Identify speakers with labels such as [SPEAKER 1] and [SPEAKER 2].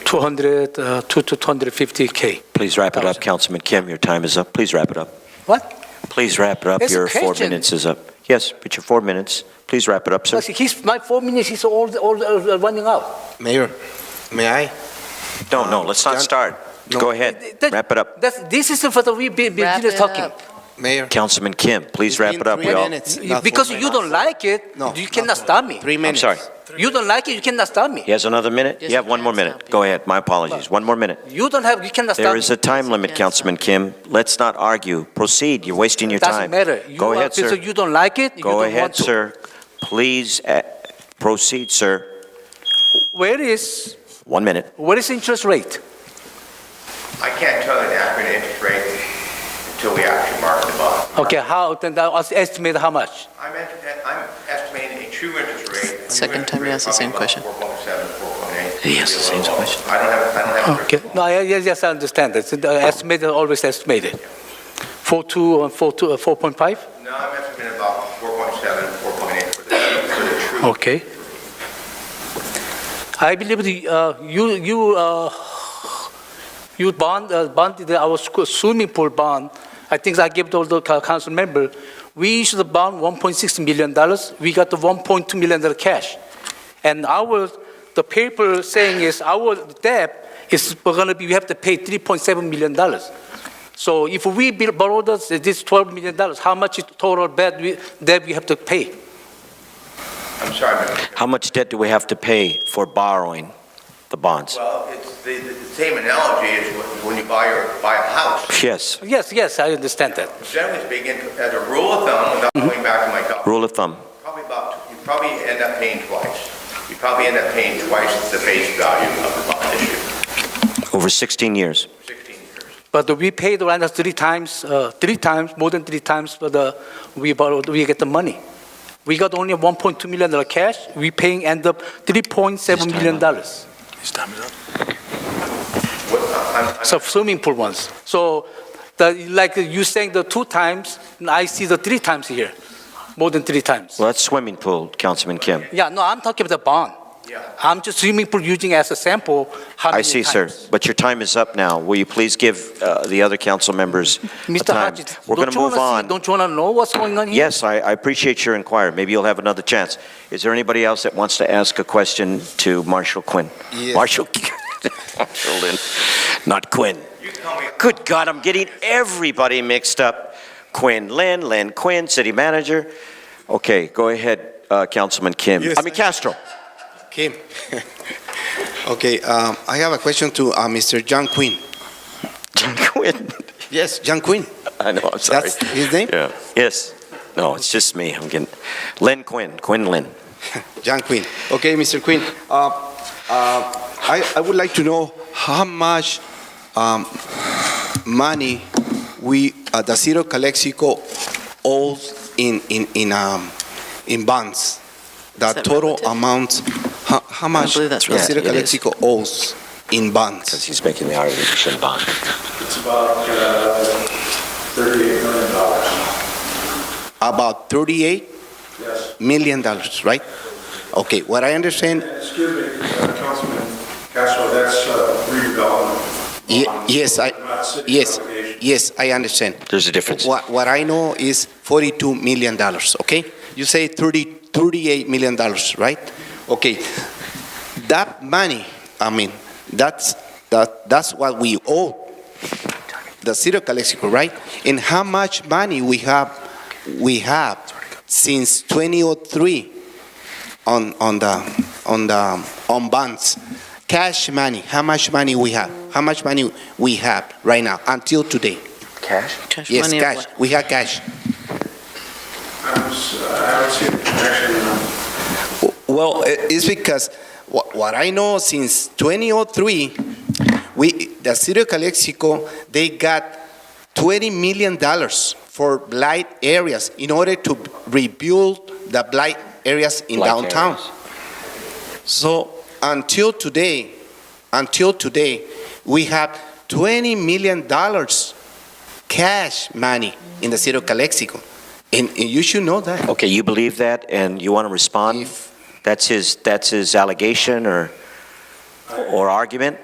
[SPEAKER 1] 200, uh, to to 250K.
[SPEAKER 2] Please wrap it up,
[SPEAKER 1] Thousand.
[SPEAKER 2] Councilman Kim, your time is up. Please wrap it up.
[SPEAKER 1] What?
[SPEAKER 2] Please wrap it up,
[SPEAKER 1] It's a
[SPEAKER 2] your four
[SPEAKER 1] question.
[SPEAKER 2] minutes is up. Yes, but your four minutes, please wrap it up, sir.
[SPEAKER 1] Plus, he's, my four minutes is all, all uh, running out.
[SPEAKER 3] Mayor, may I?
[SPEAKER 2] No, no, let's not
[SPEAKER 3] John-
[SPEAKER 2] start.
[SPEAKER 3] No.
[SPEAKER 2] Go ahead,
[SPEAKER 1] That-
[SPEAKER 2] wrap it up.
[SPEAKER 1] That's, this is for the, we be-
[SPEAKER 4] Wrap
[SPEAKER 1] beginner
[SPEAKER 4] it
[SPEAKER 1] talking.
[SPEAKER 4] up.
[SPEAKER 3] Mayor.
[SPEAKER 2] Councilman Kim, please wrap it up,
[SPEAKER 3] Three
[SPEAKER 2] we all.
[SPEAKER 3] minutes.
[SPEAKER 1] You-
[SPEAKER 3] not
[SPEAKER 1] Because
[SPEAKER 3] four
[SPEAKER 1] you don't like it,
[SPEAKER 3] No,
[SPEAKER 1] you
[SPEAKER 3] not
[SPEAKER 1] cannot
[SPEAKER 3] four.
[SPEAKER 1] stop me.
[SPEAKER 3] Three
[SPEAKER 2] I'm
[SPEAKER 3] minutes.
[SPEAKER 2] sorry.
[SPEAKER 1] You don't like it, you cannot stop me.
[SPEAKER 2] He has another minute?
[SPEAKER 4] Yes,
[SPEAKER 2] You have
[SPEAKER 4] you
[SPEAKER 2] one more
[SPEAKER 4] can stop
[SPEAKER 2] minute.
[SPEAKER 4] you.
[SPEAKER 2] Go ahead, my apologies, one more minute.
[SPEAKER 1] You don't have, you cannot stop
[SPEAKER 2] There
[SPEAKER 1] me.
[SPEAKER 2] is a time limit,
[SPEAKER 4] Yes,
[SPEAKER 2] Councilman Kim. Let's not argue. Proceed, you're wasting your
[SPEAKER 1] Doesn't
[SPEAKER 2] time.
[SPEAKER 1] matter. You
[SPEAKER 2] Go
[SPEAKER 1] are-
[SPEAKER 2] ahead,
[SPEAKER 1] because
[SPEAKER 2] sir.
[SPEAKER 1] You don't like it, you
[SPEAKER 2] Go
[SPEAKER 1] don't want
[SPEAKER 2] ahead,
[SPEAKER 1] to.
[SPEAKER 2] sir. Please eh, proceed, sir.
[SPEAKER 1] Where is,
[SPEAKER 2] One minute.
[SPEAKER 1] where is interest rate?
[SPEAKER 5] I can't tell you the accurate interest rate until we actually mark the bond.
[SPEAKER 1] Okay, how, then I was estimate how much?
[SPEAKER 5] I'm est- I'm estimating a true interest rate. a true
[SPEAKER 4] Second time he
[SPEAKER 5] interest rate
[SPEAKER 4] asked the
[SPEAKER 5] probably
[SPEAKER 4] same question.
[SPEAKER 5] about 4.7, 4.8.
[SPEAKER 2] He asked the same question.
[SPEAKER 5] I don't have, I don't have. a
[SPEAKER 1] Oh, Okay,
[SPEAKER 5] crystal
[SPEAKER 1] no, I- yes, yes, I understand. It's uh, estimated, always estimated. Four two, uh, four two, uh, 4.5?
[SPEAKER 5] ball. No, I'm estimating about 4.7, 4.8 for the, for the true.
[SPEAKER 1] Okay. I believe the, uh, you, you, uh, you bond, uh, bonded our squ- swimming pool bond. I think I gave to all the co- council member. We issued a bond 1.6 million dollars. We got the 1.2 million dollar cash. And our, the paper saying is our debt is we're gonna be, we have to pay 3.7 million dollars. So if we build- borrow this, this 12 million dollars, how much total debt we, debt we have to pay?
[SPEAKER 5] I'm sorry, Mr. Chairman.
[SPEAKER 2] How much debt do we have to pay for borrowing the bonds?
[SPEAKER 5] Well, it's, the, the same analogy is when- when you buy your, buy a house.
[SPEAKER 2] Yes,
[SPEAKER 1] Yes, yes, I understand that.
[SPEAKER 5] Generally speaking, as a rule of thumb, without going back to my document.
[SPEAKER 2] rule of thumb.
[SPEAKER 5] Probably about, you probably end up paying twice. You probably end up paying twice the face value of the bond issue,
[SPEAKER 2] Over 16 years.
[SPEAKER 5] 16 years.
[SPEAKER 1] But we paid around three times, uh, three times, more than three times for the, we borrowed, we get the money. We got only 1.2 million dollar cash, we paying end up 3.7 million dollars.
[SPEAKER 5] What, I'm, I'm
[SPEAKER 1] So swimming pool ones. So the, like you saying the two times, and I see the three times here, more than three times.
[SPEAKER 2] Well, that's swimming pool, Councilman Kim.
[SPEAKER 1] Yeah, no, I'm talking about the bond.
[SPEAKER 5] Yeah.
[SPEAKER 1] I'm just swimming pool using as a sample. how
[SPEAKER 2] I
[SPEAKER 1] many
[SPEAKER 2] see, sir,
[SPEAKER 1] times.
[SPEAKER 2] but your time is up now. Will you please give uh, the other council members a
[SPEAKER 1] Mr.
[SPEAKER 2] time?
[SPEAKER 1] Hodges,
[SPEAKER 2] We're going
[SPEAKER 1] don't
[SPEAKER 2] to
[SPEAKER 1] you
[SPEAKER 2] move
[SPEAKER 1] wanna see,
[SPEAKER 2] on.
[SPEAKER 1] don't you wanna know what's going on here?
[SPEAKER 2] Yes, I I appreciate your inquiry. Maybe you'll have another chance. Is there anybody else that wants to ask a question to Marshall Quinn?
[SPEAKER 3] Yes.
[SPEAKER 2] Marshall Quinn, Marshall Lynn, not Quinn.
[SPEAKER 5] You tell me.
[SPEAKER 2] Good God, I'm getting everybody mixed up. Quinn Lynn, Lynn Quinn, city manager. Okay, go ahead, uh, Councilman Kim.
[SPEAKER 3] Yes,
[SPEAKER 2] I mean Castro.
[SPEAKER 3] Kim. Okay, um, I have a question to uh, Mr. John Quinn.
[SPEAKER 2] Quinn.
[SPEAKER 3] Yes, John Quinn.
[SPEAKER 2] I know, I'm sorry.
[SPEAKER 3] That's his name?
[SPEAKER 2] Yeah. Yes. No, it's just me. I'm getting, Lynn Quinn, Quinn Lynn.
[SPEAKER 3] John Quinn. Okay, Mr. Quinn. Uh, uh, I, I would like to know how much um, money we uh, the city of Calexico owes in in in um, in bonds. The
[SPEAKER 4] Is that
[SPEAKER 3] total
[SPEAKER 4] relative?
[SPEAKER 3] amount. How, how much
[SPEAKER 4] believe that's
[SPEAKER 3] the city of
[SPEAKER 2] relative. Yeah, it is.
[SPEAKER 3] Calexico owes in bonds?
[SPEAKER 2] Because he's making the argument, you shouldn't bond.
[SPEAKER 6] It's about uh, $38 million.
[SPEAKER 3] About thirty-eight
[SPEAKER 6] Yes.
[SPEAKER 3] million dollars, right? Okay. What I understand.
[SPEAKER 6] Excuse me, uh, Councilman Castro, that's uh, redevelopment.
[SPEAKER 3] Ye- yes, I.
[SPEAKER 6] Not city
[SPEAKER 3] Yes.
[SPEAKER 6] obligation.
[SPEAKER 3] Yes, I understand.
[SPEAKER 2] There's a difference.
[SPEAKER 3] What, what I know is $42 million, okay? You say 30, $38 million, right? Okay. That money, I mean, that's, that, that's what we owe the city of Calexico, right? And how much money we have, we have since 2003 on, on the, on the, on bonds. Cash money, how much money we have? How much money we have right now until today?
[SPEAKER 2] Cash?
[SPEAKER 4] Cash
[SPEAKER 3] Yes,
[SPEAKER 4] money or
[SPEAKER 3] cash.
[SPEAKER 4] what?
[SPEAKER 3] We have cash.
[SPEAKER 6] I don't s- uh, I don't see the connection. uh,
[SPEAKER 3] Well, i- it's because what, what I know since 2003, we, the city of Calexico, they got 20 million dollars for blight areas in order to rebuild the blight areas in
[SPEAKER 2] Blight
[SPEAKER 3] downtown.
[SPEAKER 2] areas.
[SPEAKER 3] So until today, until today, we have 20 million dollars cash money in the city of Calexico. And, and you should know that.
[SPEAKER 2] Okay, you believe that and you want to respond?
[SPEAKER 3] If-
[SPEAKER 2] That's his, that's his allegation or, or argument?